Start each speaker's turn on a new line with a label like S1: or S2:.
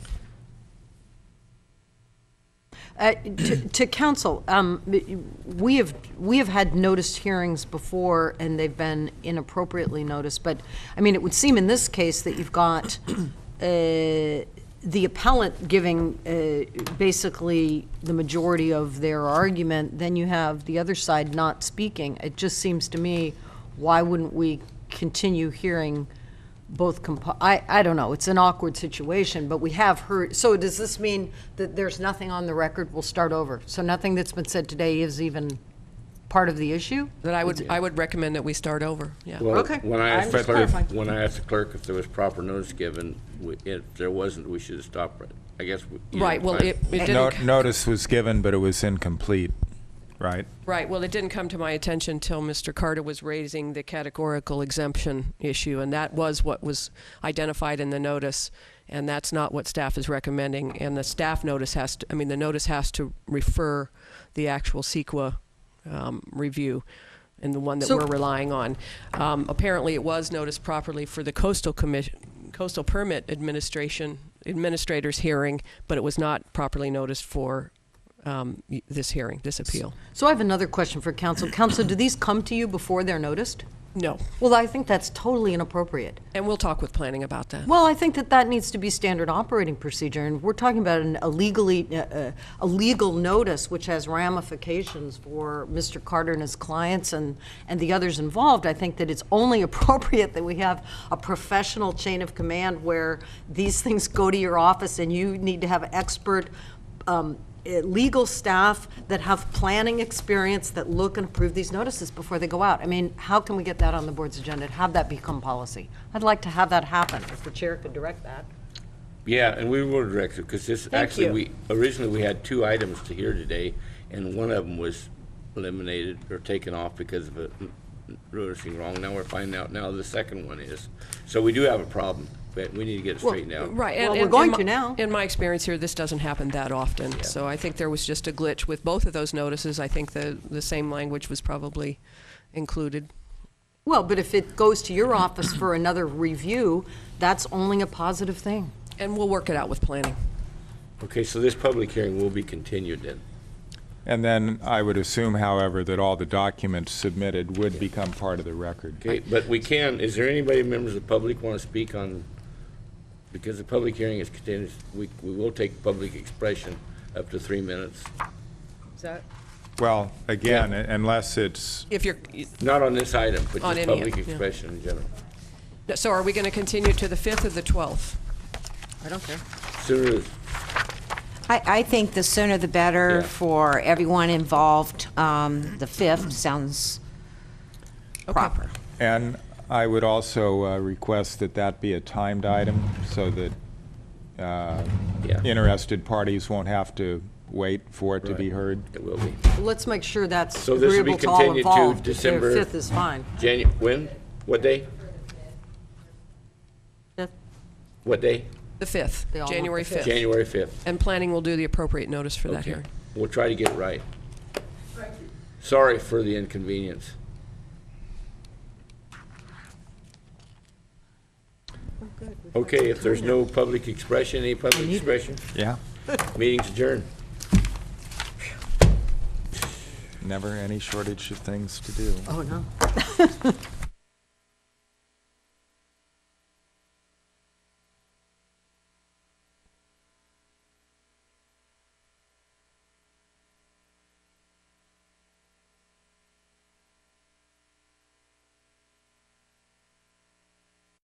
S1: Uh, To to council, um, we have, we have had noticed hearings before, and they've been inappropriately noticed, but, I mean, it would seem in this case that you've got uh, the appellant giving uh, basically the majority of their argument, then you have the other side not speaking. It just seems to me, why wouldn't we continue hearing both compo, I, I don't know, it's an awkward situation, but we have heard, so does this mean that there's nothing on the record, we'll start over? So nothing that's been said today is even part of the issue?
S2: Then I would, I would recommend that we start over, yeah.
S3: Well,
S1: Okay.
S3: When I
S1: I'm
S3: asked the
S1: just
S3: clerk,
S1: clarifying.
S3: when I asked the clerk if there was proper notice given, we- if there wasn't, we should have stopped right. I guess. we- you
S2: Right,
S3: know,
S2: well,
S3: fine.
S2: it, it
S4: No-
S2: didn't,
S4: Notice was given, but it was incomplete, right?
S2: right, well, it didn't come to my attention till Mr. Carter was raising the categorical exemption issue, and that was what was identified in the notice, and that's not what staff is recommending, and the staff notice has to, I mean, the notice has to refer the actual CEQA um, review and the one that
S1: So-
S2: we're relying on. Um, Apparently, it was noticed properly for the coastal commission, coastal permit administration, administrator's hearing, but it was not properly noticed for um, y- this hearing, this appeal.
S1: So I have another question for council. Council, do these come to you before they're noticed?
S2: No.
S1: Well, I think that's totally inappropriate.
S2: And we'll talk with planning about that.
S1: Well, I think that that needs to be standard operating procedure, and we're talking about an, a legally, uh, uh, a legal notice which has ramifications for Mr. Carter and his clients and, and the others involved. I think that it's only appropriate that we have a professional chain of command where these things go to your office and you need to have expert um, eh, legal staff that have planning experience that look and approve these notices before they go out. I mean, how can we get that on the board's agenda and have that become policy? I'd like to have that happen, if the chair could direct that.
S3: Yeah, and we were directed, because this, actually,
S1: you.
S3: we, originally, we had two items to hear today, and one of them was eliminated or taken off because of a mm, noticing wrong. Now we're finding out now the second one is. So we do have a problem, but we need to get it straightened out.
S2: Right.
S1: Well,
S2: and-
S1: we're
S2: and-
S1: going
S2: in
S1: to
S2: my-
S1: now.
S2: In my experience here, this doesn't happen that often. So I think there was just a glitch with both of those notices. I think the, the same language was probably included.
S1: Well, but if it goes to your office for another review, that's only a positive thing.
S2: And we'll work it out with planning.
S3: Okay, so this public hearing will be continued then.
S4: And then I would assume, however, that all the documents submitted would become part of the record.
S3: Okay, but we can, is there anybody, members of the public, want to speak on, because the public hearing is continued, we, we will take public expression up to three minutes.
S1: Is that?
S4: Well, again, unless it's,
S2: If you're,
S3: Not on this item, but
S2: On
S3: just
S2: any,
S3: public
S2: yeah.
S3: expression in general.
S2: so are we going to continue to the 5th or the 12th?
S1: I don't care.
S3: Sooner, is-
S5: I, I think the sooner the better
S3: Yeah.
S5: for everyone involved. Um, The 5th sounds proper.
S4: and I would also uh, request that that be a timed item so that uh,
S3: Yeah.
S4: interested parties won't have to wait for it to be
S3: Right.
S4: heard.
S3: it will be.
S1: Let's make sure that's
S3: So this will be
S1: agreeable to all
S3: continued to
S1: involved. If
S3: December.
S1: the Fifth is fine.
S3: Janu, when? What day?
S1: Fifth,
S3: What day?
S2: The 5th,
S1: They all want
S2: January
S1: the fifth.
S2: 5th.
S3: January 5th.
S2: And planning will do the appropriate notice for that
S3: Okay.
S2: hearing.
S3: We'll try to get it right. Sorry for the inconvenience. Okay, if there's no public expression, any public expression,
S4: Yeah,
S3: meeting's adjourned.
S4: never any shortage of things to do.
S1: Oh, no.